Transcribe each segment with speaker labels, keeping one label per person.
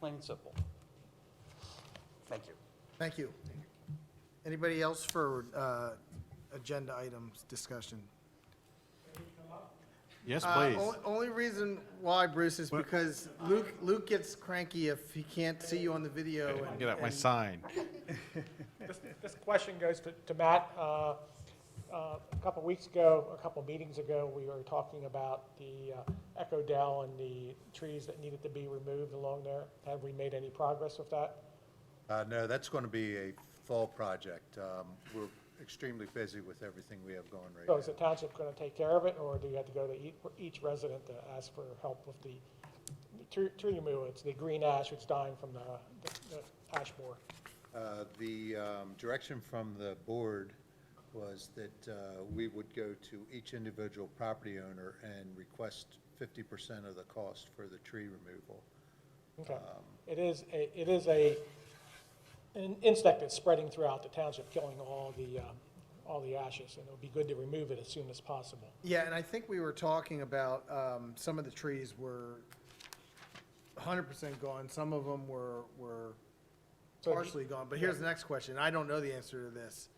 Speaker 1: Plain and simple. Thank you.
Speaker 2: Thank you. Anybody else for uh, agenda items discussion?
Speaker 3: Yes,
Speaker 2: Uh,
Speaker 3: please.
Speaker 2: on- Only reason why, Bruce, is because Luke, Luke gets cranky if he can't see you on the video. and-
Speaker 3: Get out my
Speaker 2: and-
Speaker 3: sign.
Speaker 4: This question goes to, to Matt. Uh, uh, A couple weeks ago, a couple meetings ago, we were talking about the uh, Echo Dell and the trees that needed to be removed along there. Have we made any progress with that?
Speaker 5: Uh, no, that's going to be a fall project. Um, we're extremely busy with everything we have going right
Speaker 4: So Oh, is the
Speaker 5: now.
Speaker 4: township going to take care of it, or do you have to go to ea- each resident to ask for help with the tree tree removal? It's the green ash that's dying from the- the the ash borer.
Speaker 5: Uh, the, um, direction from the board was that, uh, we would go to each individual property owner and request fifty percent of the cost for the tree removal.
Speaker 4: Okay. It is, a it is a, an insect that's spreading throughout the township, killing all the, um, all the ashes, and it would be good to remove it as soon as possible.
Speaker 2: Yeah, and I think we were talking about, um, some of the trees were 100% gone, some of them were, were
Speaker 4: So if you-
Speaker 2: partially gone. But here's the next question, I don't know the answer to this.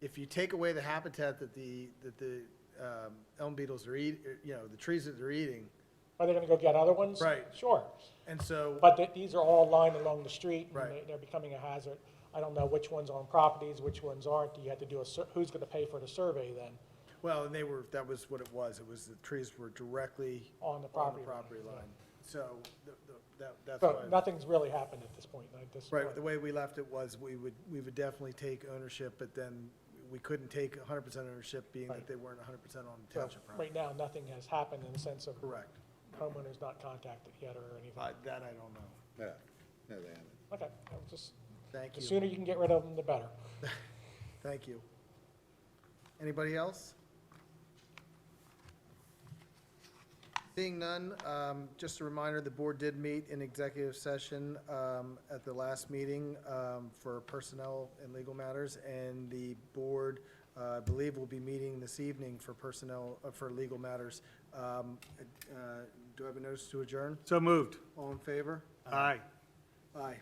Speaker 2: If you take away the habitat that the, that the um, elm beetles are eat, er, you know, the trees that they're eating,
Speaker 4: Are they gonna go get other ones?
Speaker 2: Right.
Speaker 4: Sure,
Speaker 2: and so.
Speaker 4: but th- these are all lined along the street, and
Speaker 2: Right.
Speaker 4: they- they're becoming a hazard. I don't know which ones are on properties, which ones aren't, you have to do a, sur- who's gonna pay for the survey then,
Speaker 2: Well, and they were, that was what it was, it was the trees were directly
Speaker 4: on the
Speaker 2: on the
Speaker 4: property? line.
Speaker 2: property line. So, the- the- that, that's
Speaker 4: So
Speaker 2: why,
Speaker 4: nothing's really happened at this point, I just.
Speaker 2: right, the way we left it was, we would, we would definitely take ownership, but then we couldn't take hundred percent ownership, being that
Speaker 4: Right.
Speaker 2: they weren't hundred percent on the
Speaker 4: So
Speaker 2: township property.
Speaker 4: Right now, nothing has happened in the sense of
Speaker 2: Correct.
Speaker 4: homeowner's not contacted yet or anything.
Speaker 2: Uh, That I don't know.
Speaker 5: No, no, they haven't.
Speaker 4: Okay, I was just,
Speaker 2: Thank
Speaker 4: the
Speaker 2: you.
Speaker 4: sooner you can get rid of them, the better.
Speaker 2: Thank you. Anybody else? Seeing none, um, just a reminder, the board did meet in executive session um, at the last meeting um, for personnel and legal matters, and the board, uh, I believe, will be meeting this evening for personnel, uh, for legal matters. Um, uh, Do I have a notice to adjourn?
Speaker 6: So moved.
Speaker 2: All in favor?
Speaker 6: Aye.
Speaker 2: Aye.